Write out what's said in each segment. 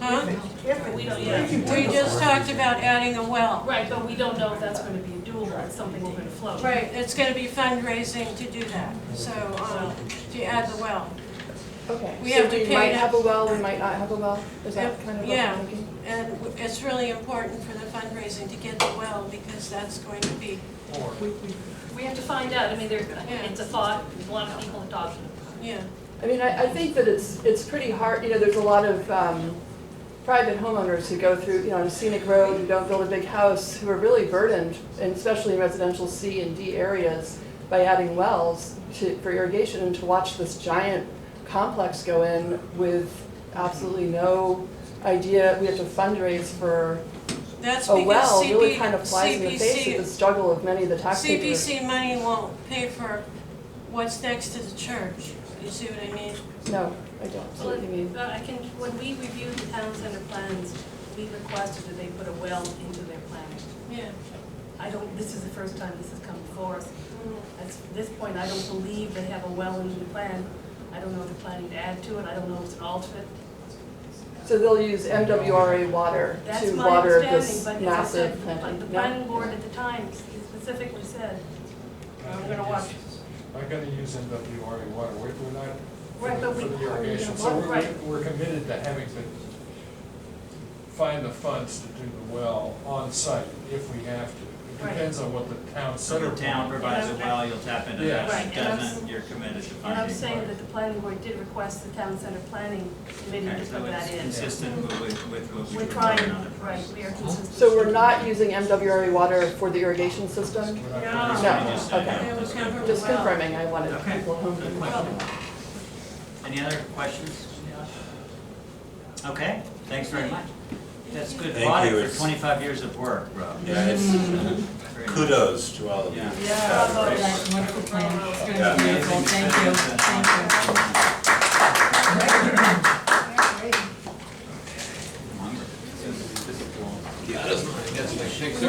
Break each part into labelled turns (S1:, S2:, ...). S1: Huh?
S2: If it- if it-
S3: We don't, yeah.
S2: if you
S1: We
S2: take a-
S1: just talked about adding a well.
S3: Right, but we don't know if that's gonna be doable, it's something we're gonna float.
S1: Right, it's gonna be fundraising to do that, so, um, to add the well.
S4: Okay,
S1: We
S4: so
S1: have to
S4: we
S1: pay
S4: might
S1: to-
S4: have a well, we might not have a well, is that kind of what
S1: Yeah.
S4: I'm thinking?
S1: And w- it's really important for the fundraising to get the well, because that's going to be,
S2: We- we-
S3: We have to find out, I mean, there, it's a thought, a lot of people adoption.
S1: yeah.
S4: I mean, I, I think that it's, it's pretty hard, you know, there's a lot of, um, private homeowners who go through, you know, on a scenic road, who don't build a big house, who are really burdened, and especially in residential C and D areas, by adding wells to, for irrigation, and to watch this giant complex go in with absolutely no idea, we have to fundraize for
S1: That's
S4: a Oh, well,
S1: because
S4: really
S1: CP,
S4: kind of flies in the face of the
S1: CPC,
S4: struggle of many of the taxpayers.
S1: CPC money won't pay for what's next to the church. You see what I mean?
S4: No, I don't see what you mean.
S3: But I can, when we reviewed the town center plans, we requested that they put a well into their planning.
S1: Yeah.
S3: I don't, this is the first time this has come before us.
S4: Mm-hmm.
S3: At this point, I don't believe they have a well in the plan. I don't know if they're planning to add to it, I don't know if it's an alternate.
S4: So they'll use MWRA water
S3: That's
S4: to
S3: my
S4: water
S3: understanding,
S4: this
S3: but as I
S4: massive
S3: said, like
S4: planting.
S3: the
S4: No.
S3: planning board at the time specifically said, I'm gonna watch.
S5: We're gonna use MWRA water, we're, we're not.
S3: Right, but we-
S5: For the irrigation, so
S3: Right.
S5: we're, we're committed to having to find the funds to do the well on site if we have to. It
S3: Right.
S5: depends on what the town
S6: So
S5: center.
S6: the town provides a well, you'll tap into that,
S3: Right,
S6: if it
S3: and I'm s-
S6: doesn't, you're committed to
S3: and I'm
S6: finding
S3: saying that
S6: water.
S3: the planning board did request the town center planning committee
S6: Okay,
S3: to
S6: so
S3: put that
S6: it's
S3: in.
S6: consistent with, with what we
S3: We're
S6: were
S3: trying,
S6: doing on the
S3: right,
S6: price.
S3: we are consistent.
S4: So we're not using MWRA water for the irrigation system?
S5: We're not
S3: No.
S5: gonna use
S4: No,
S5: it.
S6: Just saying,
S4: okay.
S6: yeah,
S1: It was
S6: that's
S1: never-
S6: good.
S4: Just
S1: Well-
S4: confirming, I wanted
S6: Okay.
S4: people home to
S6: Good
S4: know.
S6: question. Any other questions? Okay, thanks very much. That's good
S7: Thank you,
S6: audit for
S7: it's-
S6: twenty-five years of work, Rob.
S7: Yeah, it's
S6: Very nice.
S7: kudos to all of you.
S6: Yeah.
S2: Yeah, bravo, that's wonderful plan. It's gonna be beautiful.
S6: Amazing
S2: Thank you,
S6: success.
S2: thank
S6: Longer. This- this is long.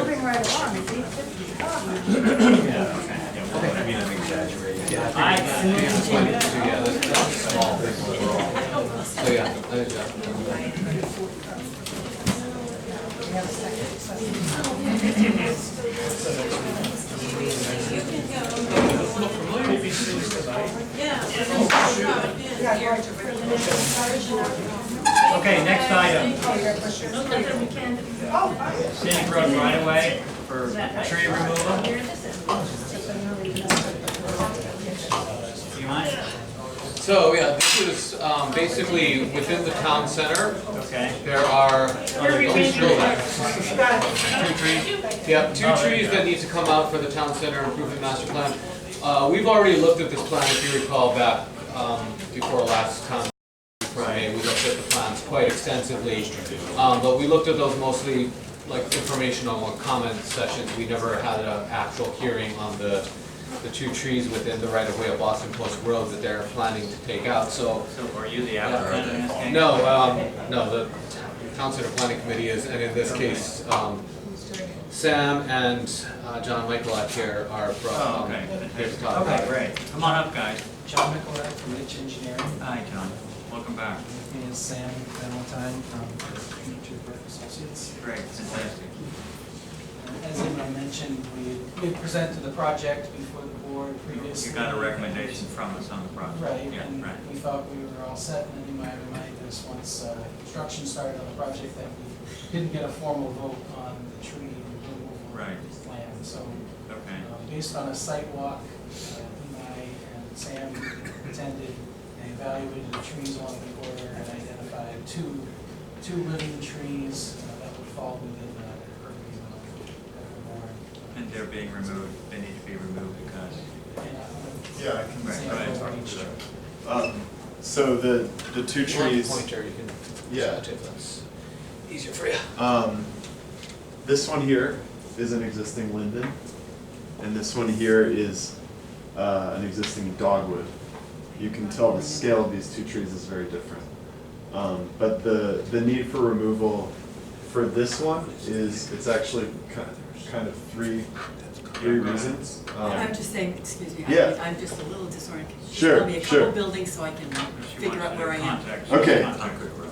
S2: you. Moving right along, it's eight fifty.
S6: Yeah, okay.
S7: I mean, I'm exaggerating.
S6: I got it.
S2: We have a second. so-
S1: You can go. Yeah.
S2: Yeah,
S1: Yeah.
S2: right.
S6: Okay, next item,
S2: Oh, you got questions?
S3: Look like we can.
S2: Oh, fine.
S6: scenic road right away for tree removal. Do you mind?
S8: So, yeah, this is um, basically within the town center,
S6: Okay.
S8: there are.
S3: rearranging
S8: Two trees, yep, two trees that need to come out for the town center improvement master plan. Uh, We've already looked at this plan, if you recall, back um, before last town from May, we looked at the plans quite extensively. Um, but we looked at those mostly like informational and comment sessions, we never had an actual hearing on the, the two trees within the right of way of Boston Post Road that they're planning to take out, so.
S6: So are you the applicant in this case?
S8: No, um, no, the town center planning committee is, and in this case, um, Sam and, uh, John Michaelak here are
S6: Oh,
S8: from, um,
S6: okay.
S8: here to talk about
S6: Okay,
S8: it.
S6: great. Come on up, guys.
S9: John Nicolak from Rich Engineering,
S6: Hi, John. Welcome back.
S9: and Sam Valentine um, from Future Park Associates. Uh,
S6: Great, fantastic.
S9: As I mentioned, we we presented the project before the board previously.
S6: You got a recommendation from us on the project?
S9: Right,
S6: Yeah,
S9: and
S6: right.
S9: we thought we were all set, and then you might remind us, once uh, construction started on the project, that we didn't get a formal vote on the tree removal
S6: Right.
S9: plan. So
S6: Okay.
S9: Uh, Based on a site walk, uh, Eli and Sam attended, they evaluated the trees along the border and identified two, two living trees uh, that would fall within the purview of the board.
S6: And they're being removed, they need to be removed because,
S9: And, uh,
S7: Yeah, I can-
S9: Sam
S6: right,
S9: will
S6: right.
S9: reach-
S7: Um, So the, the two
S8: One
S7: trees,
S8: pointer, you can.
S7: Yeah.
S8: if that's Easier for you.
S7: um, this one here is an existing linden, and this one here is, uh, an existing dogwood. You can tell the scale of these two trees is very different. Um, but the, the need for removal for this one is, it's actually kind of, kind of three, three reasons. Um,
S10: I'm just saying, excuse me,
S7: Yeah.
S10: I'm, I'm just a little disoriented. Just
S7: Sure,
S10: Tell me a
S7: sure.
S10: couple buildings so I can
S6: if you
S10: figure
S6: want
S10: out where I
S6: to
S10: am.
S6: contact.
S7: Okay.
S6: Contact Road.